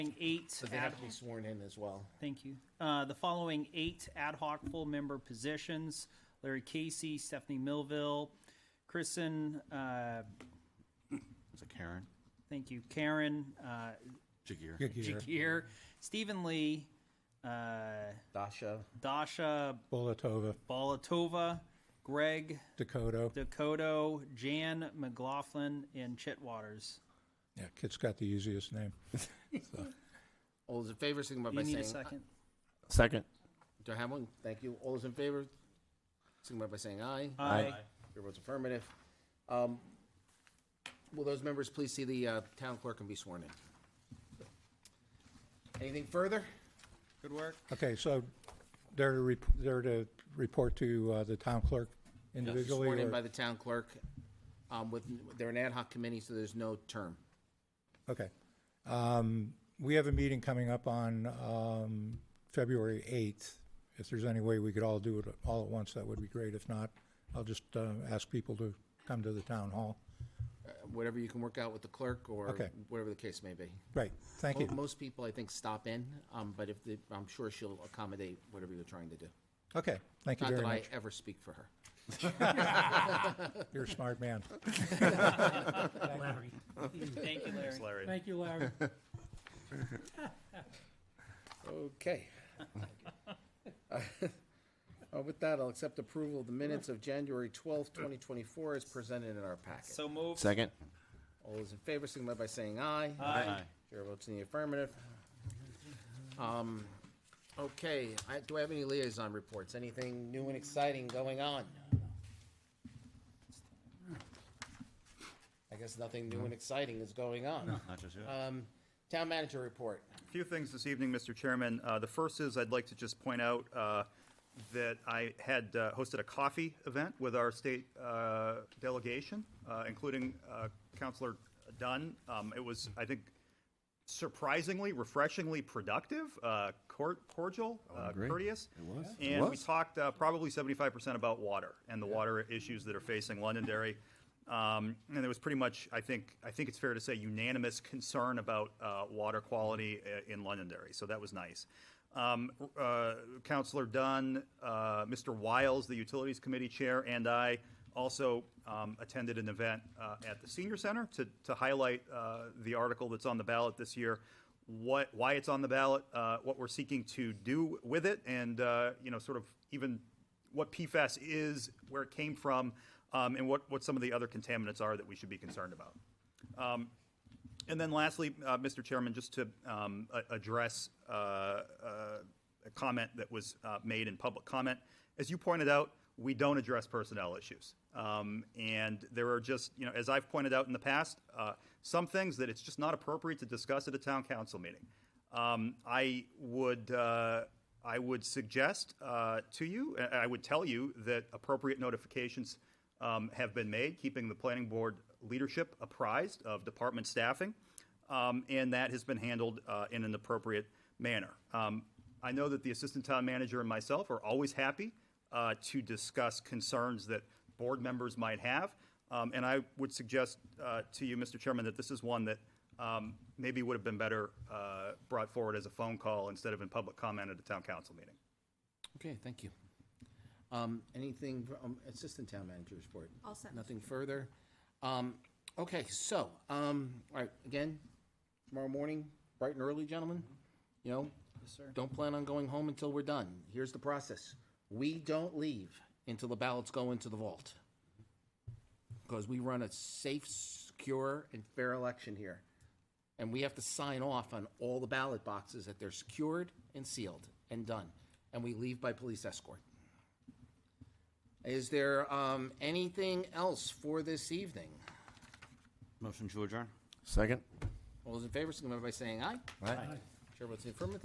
following eight, So they ad- have to be sworn in as well. thank you, Uh, the following eight ad hoc full member positions, Larry Casey, Stephanie Millville, Kristen, uh, Is it Karen? thank you, Karen, uh, Jagir? Jakir, Stephen Lee, uh, Dasha, Dasha Bolatova, Balatova, Greg Dakota. Dakota, Jan McLaughlin, and Chet Waters. Yeah, kid's got the easiest name. all those in favor, signify You by need a saying. second? Second. Do I have one? Thank you. All those in favor, signify by saying aye. Aye. Chair votes affirmative. Um, Will those members please see the uh, town clerk and be sworn in? Anything further? Good work. Okay, so they're to, rep- they're to report to uh, the town clerk individually? Sworn in or- by the town clerk um, with, they're an ad hoc committee, so there's no term. Okay. Um, We have a meeting coming up on um, February 8th. If there's any way we could all do it all at once, that would be great. If not, I'll just uh, ask people to come to the town hall. Whatever you can work out with the clerk or Okay. whatever the case may be. Right, thank Mo- you. Most people, I think, stop in, um, but if, they- I'm sure she'll accommodate whatever you're trying to do. Okay, thank you Not very that I much. ever speak for her. You're a smart man. Larry. Thank you, Larry. Thank you, Larry. Okay. Uh, With that, I'll accept approval of the minutes of January 12th, 2024 as presented in our packet. So moved. Second? All those in favor signify by saying aye. Aye. Chair votes in the affirmative. Um, Okay, I- do I have any liaison reports? Anything new and exciting going on? I guess nothing new and exciting is going on. Not just yet. Um, Town manager report. few things this evening, Mr. Chairman. Uh, The first is I'd like to just point out uh, that I had uh, hosted a coffee event with our state uh, delegation, uh, including uh, Counselor Dunn. Um, It was, I think, surprisingly, refreshingly productive, uh, cor- cordial, uh, courteous. It was. And we talked uh, probably 75% about water and the water issues that are facing Londonderry. Um, and there was pretty much, I think, I think it's fair to say, unanimous concern about uh, water quality uh, in Londonderry. So that was nice. Um, uh, Councillor Dunn, uh, Mr. Wiles, the Utilities Committee Chair, and I also um, attended an event uh, at the Senior Center to, to highlight uh, the article that's on the ballot this year, what, why it's on the ballot, uh, what we're seeking to do with it, and, uh, you know, sort of even what PFAS is, where it came from, um, and what, what some of the other contaminants are that we should be concerned about. Um, And then lastly, uh, Mr. Chairman, just to um, a- address uh, uh, a comment that was uh, made in public comment, as you pointed out, we don't address personnel issues. Um, And there are just, you know, as I've pointed out in the past, uh, some things that it's just not appropriate to discuss at a town council meeting. Um, I would, uh, I would suggest uh, to you, and I would tell you that appropriate notifications um, have been made, keeping the planning board leadership apprised of department staffing, um, and that has been handled uh, in an appropriate manner. Um, I know that the assistant town manager and myself are always happy uh, to discuss concerns that board members might have, um, and I would suggest uh, to you, Mr. Chairman, that this is one that um, maybe would have been better uh, brought forward as a phone call instead of in public comment at a town council meeting. Okay, thank you. Um, anything, fr- um, assistant town manager's report? All set. Nothing further? Um, okay, so, um, all right, again, tomorrow morning, bright and early, gentlemen, you know? Mm-hmm. Yes, sir. Don't plan on going home until we're done. Here's the process. We don't leave until the ballots go into the vault. Because we run a safe, secure, and fair election here. And we have to sign off on all the ballot boxes that they're secured and sealed and done. And we leave by police escort. Is there um, anything else for this evening? Motion to adjourn? Second. All those in favor, signify by saying aye. Chair votes in affirmative.